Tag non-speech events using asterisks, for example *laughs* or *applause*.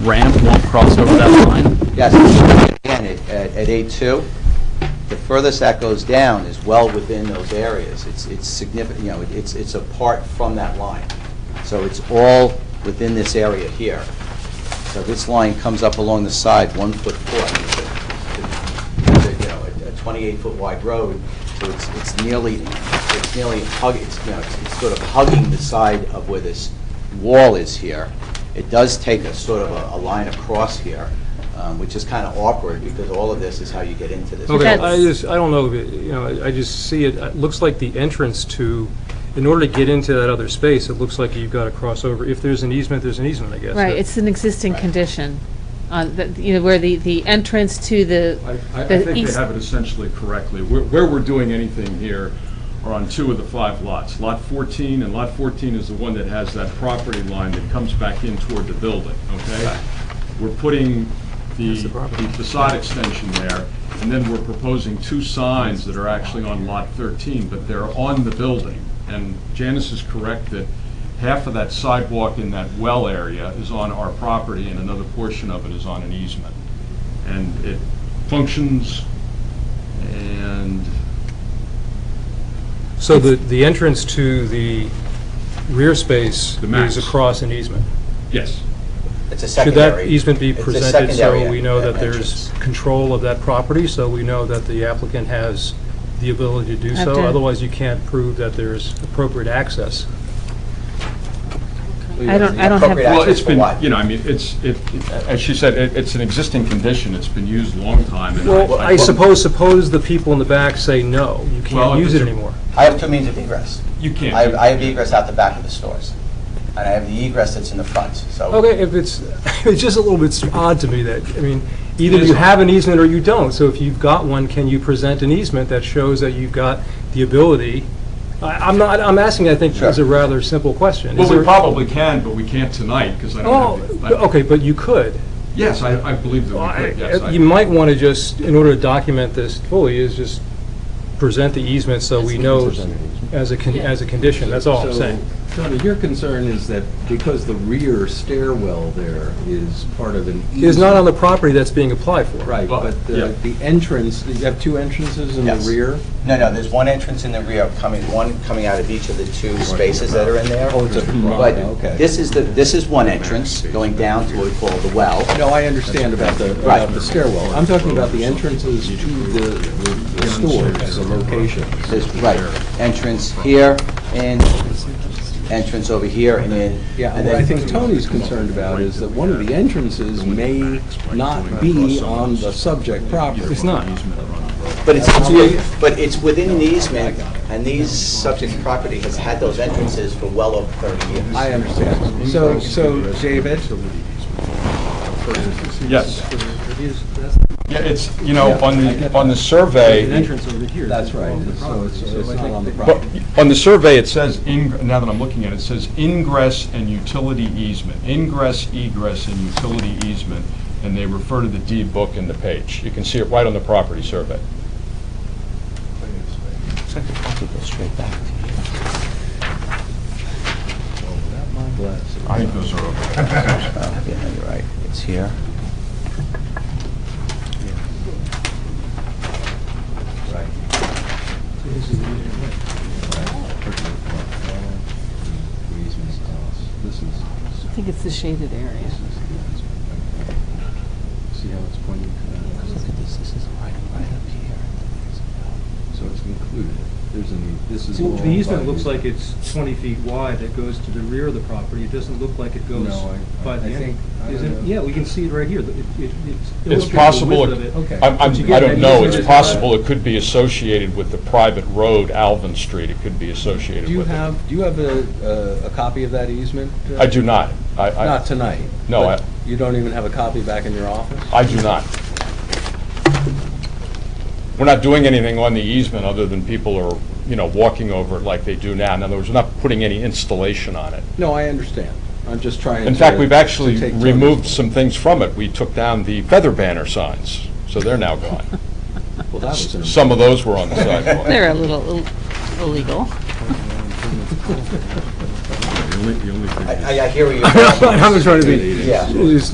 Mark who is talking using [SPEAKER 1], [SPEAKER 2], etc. [SPEAKER 1] ramp won't cross over that line?
[SPEAKER 2] Yes, again, at- at at eight-two, the furthest that goes down is well within those areas. It's it's significant, you know, it's it's apart from that line. So it's all within this area here. So this line comes up along the side, one foot four. It's a- You know, a- a twenty-eight-foot wide road, so it's it's nearly, it's nearly hug, it's, you know, it's it's sort of hugging the side of where this wall is here. It does take a sort of a- a line across here, um, which is kind of awkward, because all of this is how you get into this.
[SPEAKER 3] Okay, I
[SPEAKER 4] That's-
[SPEAKER 3] just, I don't know, if it- you know, I- I just see it, it looks like the entrance to, in order to get into that other space, it looks like you've got to cross over. If there's an easement, there's an easement, I guess.
[SPEAKER 4] Right, it's an existing
[SPEAKER 2] Right.
[SPEAKER 4] condition, on, the- you know, where the, the entrance to the,
[SPEAKER 5] I, I I
[SPEAKER 4] the
[SPEAKER 5] think they
[SPEAKER 4] east-
[SPEAKER 5] have it essentially correctly. Where, where we're doing anything here are on two of the five lots. Lot 14, and Lot 14 is the one that has that property line that comes back in toward the building, okay? We're putting the
[SPEAKER 3] That's the property.
[SPEAKER 5] the facade extension there, and then we're proposing two signs that are actually on Lot 13, but they're on the building. And Janice is correct that half of that sidewalk in that well area is on our property, and another portion of it is on an easement and it functions, and
[SPEAKER 3] So the, the entrance to the rear space
[SPEAKER 5] The max.
[SPEAKER 3] is across an easement.
[SPEAKER 5] yes,
[SPEAKER 2] It's a
[SPEAKER 3] Should
[SPEAKER 2] secondary.
[SPEAKER 3] that easement be
[SPEAKER 2] it's a
[SPEAKER 3] presented
[SPEAKER 2] secondary
[SPEAKER 3] so we know that
[SPEAKER 2] entrance.
[SPEAKER 3] there's control of that property, so we know that the applicant has the ability to do so?
[SPEAKER 4] Okay.
[SPEAKER 3] Otherwise, you can't prove that there's appropriate access.
[SPEAKER 4] I don't- I don't have-
[SPEAKER 2] Appropriate
[SPEAKER 5] well,
[SPEAKER 2] access
[SPEAKER 5] it's
[SPEAKER 2] for
[SPEAKER 5] been,
[SPEAKER 2] what?
[SPEAKER 5] you know, I mean, it's, it, it- as she said, it- it's an existing condition, it's been used a long time, and
[SPEAKER 3] Well,
[SPEAKER 5] I...
[SPEAKER 3] I suppose, suppose the people in the back say, no, you
[SPEAKER 5] Well,
[SPEAKER 3] can't
[SPEAKER 5] if
[SPEAKER 3] use it
[SPEAKER 5] it's a-
[SPEAKER 3] anymore.
[SPEAKER 2] I have two means of egress.
[SPEAKER 5] You can't.
[SPEAKER 2] I have, I have egress out the back of the stores, and I have the egress that's in the front, so.
[SPEAKER 3] Okay, if it's, *laughs* it's just a little bit odd to me that, I mean, either
[SPEAKER 5] It is
[SPEAKER 3] you
[SPEAKER 5] odd.
[SPEAKER 3] have an easement or you don't. So if you've got one, can you present an easement that shows that you've got the ability? I- I'm not, I'm asking, I think, is a
[SPEAKER 2] Sure.
[SPEAKER 3] rather simple question. Is
[SPEAKER 5] Well, we
[SPEAKER 3] there-
[SPEAKER 5] probably can, but we can't tonight, because I
[SPEAKER 3] Oh,
[SPEAKER 5] don't have... the- I-
[SPEAKER 3] okay, but you could.
[SPEAKER 5] Yes, I, I believe that we could, yes.
[SPEAKER 3] I-
[SPEAKER 5] I-
[SPEAKER 3] You might want to just, in order to document this fully, is just present the easement so we know as a, con- as a condition, that's all I'm
[SPEAKER 6] So,
[SPEAKER 3] saying.
[SPEAKER 6] Tony, your concern is that because the rear stairwell there is part of an easement.
[SPEAKER 3] It's not on the property that's being applied for.
[SPEAKER 6] Right,
[SPEAKER 5] Well,
[SPEAKER 6] but
[SPEAKER 5] yeah.
[SPEAKER 6] the the entrance, you have two entrances in the
[SPEAKER 2] Yes.
[SPEAKER 6] rear?
[SPEAKER 2] No, no, there's one entrance in the rear coming, one coming out of each of the two spaces that are in there.
[SPEAKER 6] Oh, it's a-
[SPEAKER 2] But
[SPEAKER 6] okay.
[SPEAKER 2] this is the, this is one entrance going down to what we call the well.
[SPEAKER 6] No, I understand about the,
[SPEAKER 2] Right.
[SPEAKER 6] about the stairwell. I'm talking about the entrances to the the- the stores, the locations.
[SPEAKER 2] There's, right, entrance here and entrance over here and then.
[SPEAKER 6] Yeah,
[SPEAKER 2] and
[SPEAKER 6] what I
[SPEAKER 2] then-
[SPEAKER 6] think Tony's concerned about is that one of the entrances may not be on the subject property.
[SPEAKER 3] It's not.
[SPEAKER 2] But it's, it's- but it's within an easement and these subject property has had those entrances for well over 30 years.
[SPEAKER 6] I understand. So, so, David,
[SPEAKER 5] Yes. Yeah, it's, you know, on the, on the survey...
[SPEAKER 6] that's right, so it's so it's not on the
[SPEAKER 5] Well,
[SPEAKER 6] property.
[SPEAKER 5] On the survey, it says, ing- now that I'm looking at it, it says ingress and utility easement, ingress, egress, and utility easement, and they refer to the deed book and the page. You can see it right on the property survey. I think those are okay.
[SPEAKER 2] Yeah, you're right, it's here.
[SPEAKER 6] Right.
[SPEAKER 4] I think it's the shaded area.
[SPEAKER 6] See how it's pointing
[SPEAKER 2] Look at this, this is right, right up here.
[SPEAKER 6] So it's included. There's an, this is.
[SPEAKER 7] The easement looks like it's 20 feet wide, that goes to the rear of the property, it doesn't look like it goes
[SPEAKER 6] No, I-
[SPEAKER 7] by
[SPEAKER 6] I
[SPEAKER 7] the end.
[SPEAKER 6] think- I
[SPEAKER 7] Is
[SPEAKER 6] don't
[SPEAKER 7] it-
[SPEAKER 6] know.
[SPEAKER 7] Yeah, we can see it right here, It- it- it's
[SPEAKER 5] It's
[SPEAKER 7] illustrated the
[SPEAKER 5] possible,
[SPEAKER 7] width of
[SPEAKER 5] it-
[SPEAKER 7] it.
[SPEAKER 6] Okay.
[SPEAKER 5] I'm-
[SPEAKER 6] But you
[SPEAKER 5] I'm-
[SPEAKER 6] get
[SPEAKER 5] I
[SPEAKER 6] that
[SPEAKER 5] don't know, it's
[SPEAKER 6] easement.
[SPEAKER 5] possible it could be associated with the private road, Alvin Street, it could be associated
[SPEAKER 6] Do you
[SPEAKER 5] with it.
[SPEAKER 6] have, do you have a, a- a copy of that easement? uh,
[SPEAKER 5] I do not. I- I-
[SPEAKER 6] Not tonight?
[SPEAKER 5] No,
[SPEAKER 6] but
[SPEAKER 5] I-
[SPEAKER 6] You don't even have a copy back in your office?
[SPEAKER 5] I do not. We're not doing anything on the easement other than people are, you know, walking over it like they do now. In other words, we're not putting any installation on it.
[SPEAKER 6] No, I understand. I'm just trying to.
[SPEAKER 5] In fact, we've
[SPEAKER 6] to
[SPEAKER 5] actually
[SPEAKER 6] take Tony's-
[SPEAKER 5] removed some things from it. We took down the feather banner signs, so they're now gone.
[SPEAKER 6] Well, that was an- *laughs*
[SPEAKER 5] Some of those were on the sidewalk.
[SPEAKER 4] They're a little ill- illegal.
[SPEAKER 2] I, I- I hear where you're. *laughs*
[SPEAKER 3] I'm just trying to be,
[SPEAKER 2] Yeah.
[SPEAKER 3] it's